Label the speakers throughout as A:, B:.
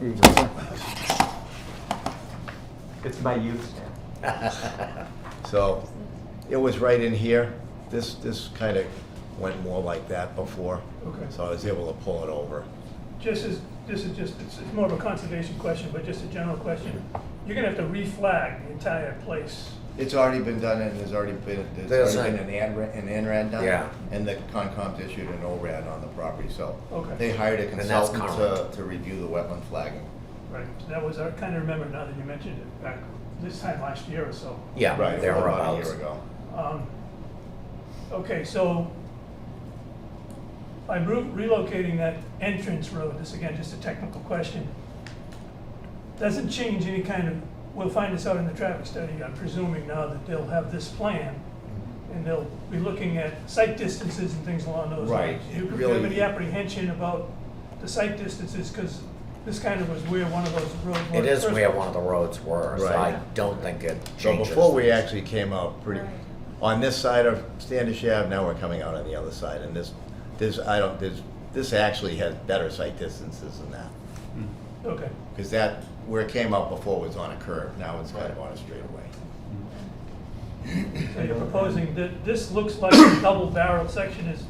A: Here you go, sir.
B: It's my youth stamp.
A: So it was right in here. This, this kind of went more like that before.
C: Okay.
A: So I was able to pull it over.
D: Just as, this is just, it's it's more of a conservation question, but just a general question. You're gonna have to reflag the entire place.
A: It's already been done and there's already been,
E: There's
A: there's already
E: a-
A: been an ANRAD, an ANRAD done.
E: Yeah.
A: And the Concom's issued an ORAD on the property, so.
D: Okay.
A: They hired a
E: And that's
A: consultant
E: current.
A: to, to review the wetland flagging.
D: Right, that was, I kinda remember now that you mentioned it, back this time last year or so.
E: Yeah,
A: Right,
E: there are
A: about a year ago.
D: Um, Okay, so by re- relocating that entrance road, this again, just a technical question, doesn't change any kind of, we'll find this out in the traffic study, I'm presuming now that they'll have this plan, and they'll be looking at site distances and things along those
A: Right,
D: lines. Do you
A: it
D: do you have
A: really-
D: any apprehension about the site distances, because this kind of was where one of those roads were.
E: It is
D: first.
E: where one of the roads were, so I
A: Right.
E: don't think it
A: So
E: changes.
A: before we actually came out pretty,
F: Right.
A: on this side of Standish Ave, now we're coming out on the other side. And this, this, I don't, this, this actually has better sight distances than that.
D: Okay,
A: Because that, where it came out before was on a curve, now it's kind of on a straightaway.
D: so you're proposing that, this looks like the double barrel section is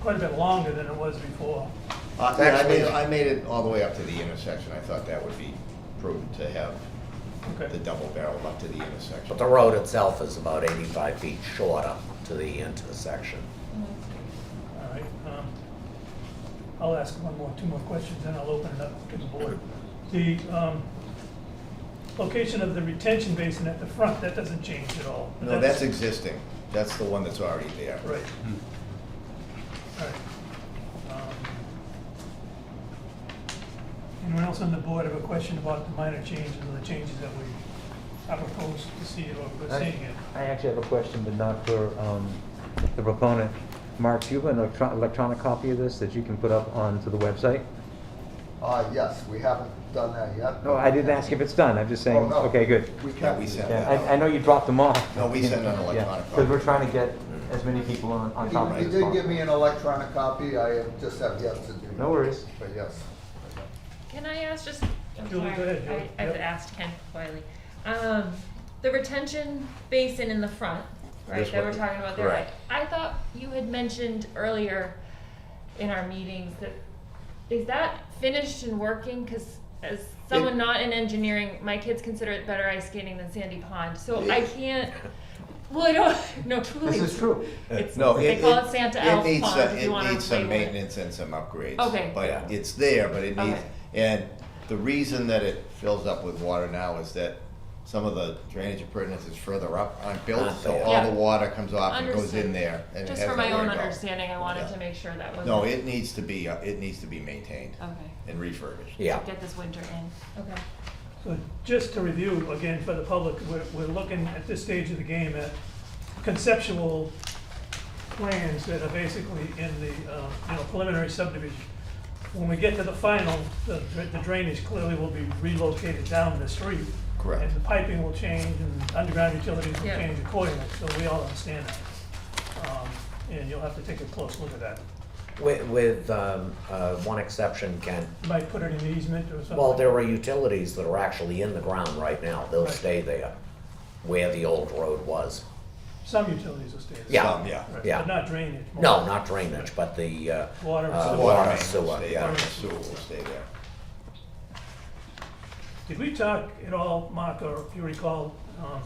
D: quite a bit longer than it was before.
A: Uh, yeah, I made,
E: Actually-
A: I made it all the way up to the intersection, I thought that would be prudent to have the
D: Okay,
A: double barrel up to the intersection.
E: But the road itself is about 85 feet shorter to the intersection.
D: all right. um, I'll ask one more, two more questions, then I'll open it up to the board. The um, location of the retention basin at the front, that doesn't change at all.
A: No, that's existing, that's the one that's already there.
D: Right. All right. Um, Anyone else on the board have a question about the minor changes or the changes that we have proposed to see or we're
B: I
D: seeing it?
B: I actually have a question, but not for um, the proponent. Mark, do you have an electro- electronic copy of this that you can put up onto the website?
G: Uh, yes, we haven't done that yet.
B: No, I didn't ask if it's done, I'm just saying,
G: Oh, no.
B: okay, good.
G: We
A: Yeah,
G: can't,
A: we sent
B: Yeah,
A: that
B: I I know
A: out.
B: you dropped them off.
A: No, we sent an electronic
B: Because we're
A: copy.
B: trying to get as many people on on top of
G: He
B: this.
G: he did give
B: possible.
G: me an electronic copy, I have- just have yet to do.
B: No worries.
G: But yes.
F: Can I ask just, I'm
D: Julie,
F: sorry,
D: go ahead, Julie.
F: I, I've
D: Yep.
F: asked Ken Wiley. Um, the retention basin in the front, right,
A: This
F: that we're
A: one.
F: talking about there, right?
A: Correct.
F: I thought you had mentioned earlier in our meetings that, is that finished and working? Cause as someone not in engineering, my kids consider it better ice skating than sandy pond, so I can't, well, I don't, no, truly.
B: This is true.
F: It's,
A: No,
F: they
A: it-
F: call
A: it-
F: it Santa
A: it
F: Elf
A: needs
F: Pond
A: some-
F: if you wanna
A: It needs some
F: play with it.
A: maintenance and some upgrades.
F: Okay.
A: But
E: Yeah.
A: it's there, but it needs,
F: Okay.
A: and the reason that it fills up with water now is that some of the drainage appurtenance is further up aren't built,
E: Not
A: so
E: there.
A: all
F: Yeah.
A: the water comes off and goes
F: Understood.
A: in there. and it
F: Just
A: has
F: for my
A: nowhere
F: own
A: to go.
F: understanding, I wanted
A: Yeah.
F: to make sure that was.
A: No, it needs to be, uh, it needs to be maintained
F: Okay.
A: and refurbished.
E: Yeah.
F: Get this winter in. Okay.
D: So just to review again for the public, we're, we're looking at this stage of the game at conceptual plans that are basically in the, uh, you know, preliminary subdivision. When we get to the final, the dra- the drainage clearly will be relocated down the street.
A: Correct.
D: And the piping will change and underground utilities will
F: Yeah.
D: change accordingly, so we all understand that. Um, And you'll have to take a close look at that.
E: With, with um, uh, one exception, Ken,
D: You Might put it in easement or something.
E: well, there are utilities that are actually in the ground right now. They'll
D: Right.
E: stay there, where the old road was.
D: Some utilities will stay there.
E: Yeah.
A: Some, yeah.
D: Right,
E: yeah.
D: But not drainage.
E: No, not drainage, but the uh,
D: Water and
E: uh,
D: sewer.
E: Water,
A: main will
E: sewer,
A: stay
E: yeah.
A: there, Sewer will stay there.
D: Did we talk at all, Mark, or if you recall, um,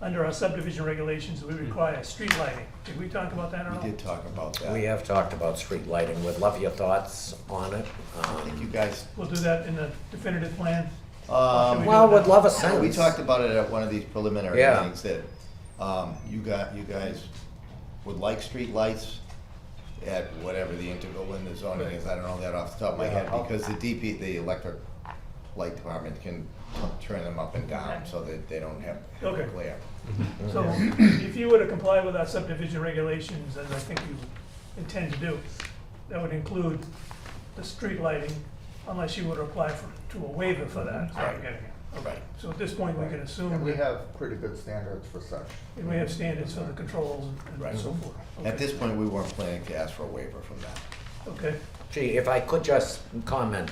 D: under our subdivision regulations, we require street lighting? Did we talk about that at all?
A: We did talk about that.
E: We
A: I
E: have talked about street lighting. Would love your thoughts on it. Um,
A: think you guys,
D: We'll do that in the definitive plan?
A: um,
D: Should we do
E: Well,
D: that?
E: would love a
A: Yeah,
E: sense.
A: We talked about it at one of these preliminary
E: Yeah.
A: meetings that, um, you got, you guys would like streetlights at whatever the integral in the zoning is, I don't know that off the top of my head,
E: Yeah.
A: because the DP, the electric light department can turn them up and down so that they don't have
D: Okay.
A: glare.
D: So if you were to comply with our subdivision regulations, as I think you intend to do, that would include the street lighting, unless you were to apply for, to a waiver for that, is what I'm getting at.
A: Right.
D: So at this point, we can
G: And
D: assume
G: we
D: that
G: have pretty good standards for such.
D: we have standards for the controls and so forth.
A: At
D: Okay.
A: this point, we weren't planning to ask for a waiver from that.
D: Okay.
E: Gee, if I could just comment